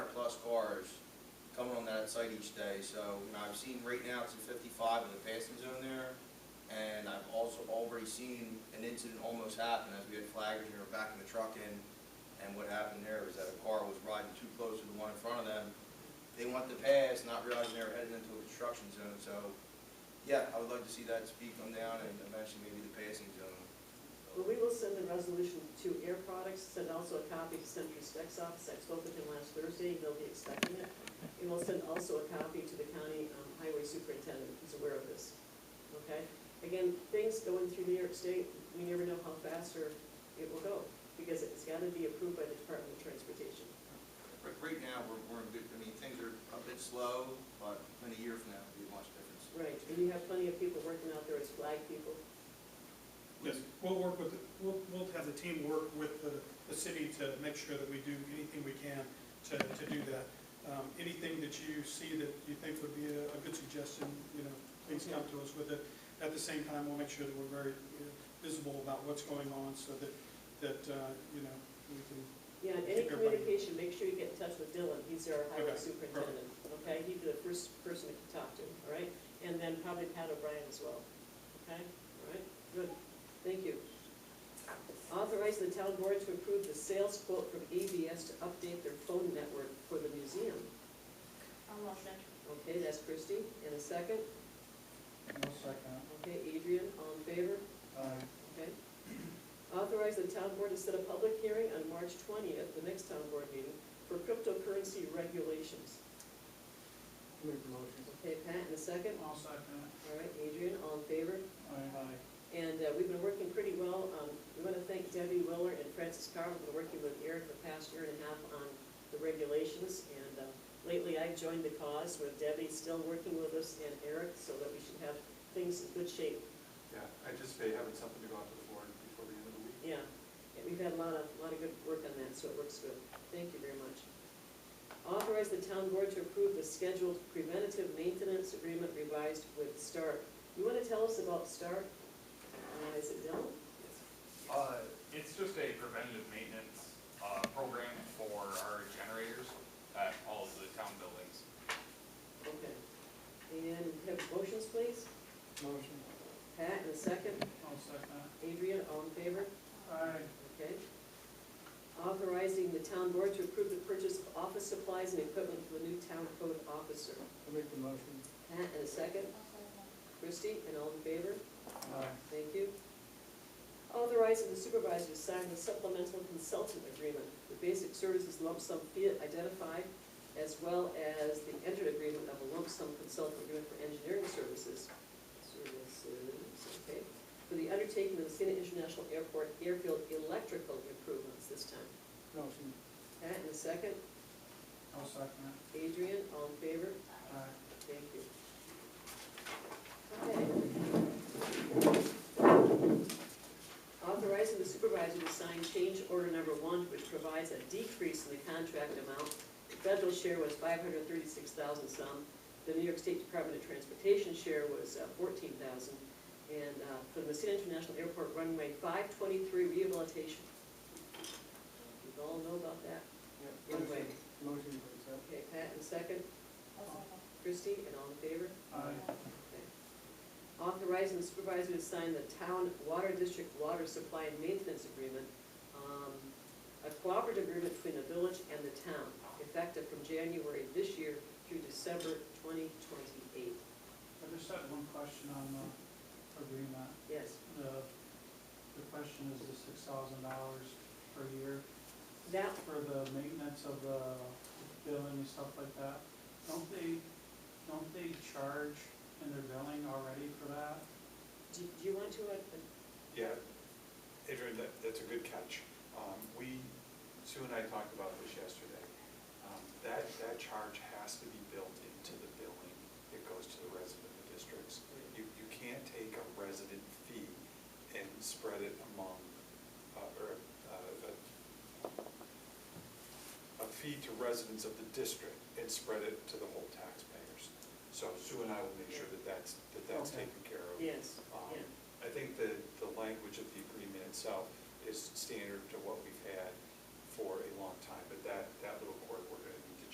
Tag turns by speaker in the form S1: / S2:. S1: cars coming on that site each day, so, you know, I've seen right now it's in fifty-five with a passing zone there, and I've also already seen an incident almost happen as we had flaggers here backing the truck in, and what happened there was that a car was riding too close to the one in front of them. They went to pass, not realizing they were headed into a construction zone, so, yeah, I would like to see that speed come down and eventually maybe the passing zone.
S2: Well, we will send the resolution to Air Products, send also a copy to Senator Steck's office, I spoke with him last Thursday, he'll be expecting it. And we'll send also a copy to the county um, highway superintendent, who's aware of this, okay? Again, things going through New York State, we never know how fast or it will go, because it's gotta be approved by the Department of Transportation.
S1: Right, right now, we're, we're in good, I mean, things are a bit slow, but in a year from now, it'll be a much difference.
S2: Right, and you have plenty of people working out there, it's flag people,
S3: Yes, we'll work with, we'll, we'll have the team work with the, the city to make sure that we do anything we can to, to do that. Um, anything that you see that you think would be a, a good suggestion, you know, please come to us with it. At the same time, we'll make sure that we're very you know, visible about what's going on so that, that, uh, you know, we can,
S2: Yeah, and any
S3: Keep everybody-
S2: communication, make sure you get in touch with Dylan, he's our highway
S3: Okay,
S2: superintendent, okay? He'd be the first person to talk to, all right? And then probably Pat O'Brien as well, okay? All right, good, thank you. Authorize the town board to approve the sales quote from ABS to update their phone network for the museum.
S4: I'll motion.
S2: Okay, that's Christie, and a second,
S5: I'll second
S2: okay, Adrian, all in favor?
S5: it. Aye.
S2: Okay. Authorize the town board to set a public hearing on March twentieth, the next town board meeting, for cryptocurrency regulations.
S5: Make the motion.
S2: Okay, Pat, in a second.
S3: I'll second
S2: All right, Adrian, all in favor?
S3: Aye.
S2: And uh, we've been working pretty well. Um, We want to thank Debbie Willer and Francis Carver for working with Eric the past year and a half on the regulations. And uh, lately, I've joined the cause with Debbie still working with us and Eric, so that we should have things in good shape.
S6: Yeah, I anticipate having something to go out to the board before the end of the week.
S2: Yeah, Yeah, we've had a lot of, lot of good work on that, so it works good. Thank you very much. Authorize the town board to approve the scheduled preventative maintenance agreement revised with Stark. You want to tell us about Stark? Uh, Is it Dylan?
S7: Uh, it's just a preventative maintenance, uh, program for our generators at all of the town buildings.
S2: Okay. And have motions, please?
S5: Motion.
S2: Pat, in a second.
S3: I'll second
S2: Adrian, all in favor?
S3: Aye.
S2: Okay. Authorizing the town board to approve the purchase of office supplies and equipment for the new town code officer.
S5: I'll make the motion.
S2: Pat, in a second. Christie, and all in favor?
S5: Aye.
S2: Thank you. Authorizing the supervisor to sign the supplemental consultant agreement, the basic services lump sum fee identified, as well as the entered agreement of a lump sum consultant agreement for engineering services, services, okay, for the undertaking of the Sina International Airport airfield electrical improvements this time.
S5: Motion.
S2: Pat, in a second.
S5: I'll second it.
S2: Adrian, all in favor?
S5: Aye.
S2: Thank you. Okay. Authorizing the supervisor to sign change order number one, which provides a decrease in the contract amount. The federal share was five hundred thirty-six thousand some. The New York State Department of Transportation share was uh, fourteen thousand. And uh, for the Messina International Airport runway five twenty-three rehabilitation. You all know about that?
S5: Yeah,
S2: Anyway.
S5: motion. Motion to accept.
S2: Okay, Pat in second, Christie, and all in favor? Okay. Authorizing the supervisor to sign the town water district water supply and maintenance agreement, um, a cooperative agreement between the village and the town, effective from January this year through December twenty twenty-eight.
S3: I just had one question on the agreement.
S2: Yes,
S3: The, the question is the six thousand dollars per year
S2: that,
S3: for the maintenance of the building and stuff like that. Don't they, don't they charge in their billing already for that?
S2: do do you want to, uh,
S6: Yeah, Adrian, that, that's a good catch. Um, we, Sue and I talked about this yesterday. Um, that, that charge has to be built into the billing that goes to the resident districts. You, you can't take a resident fee and spread it among, uh, or, uh, a a fee to residents of the district and spread it to the whole taxpayers. So Sue and I will make sure that that's, that that's
S3: Okay.
S6: taken care of.
S2: yes,
S6: Um,
S2: yeah.
S6: I think the, the language of the agreement itself is standard to what we've had for a long time, but that, that little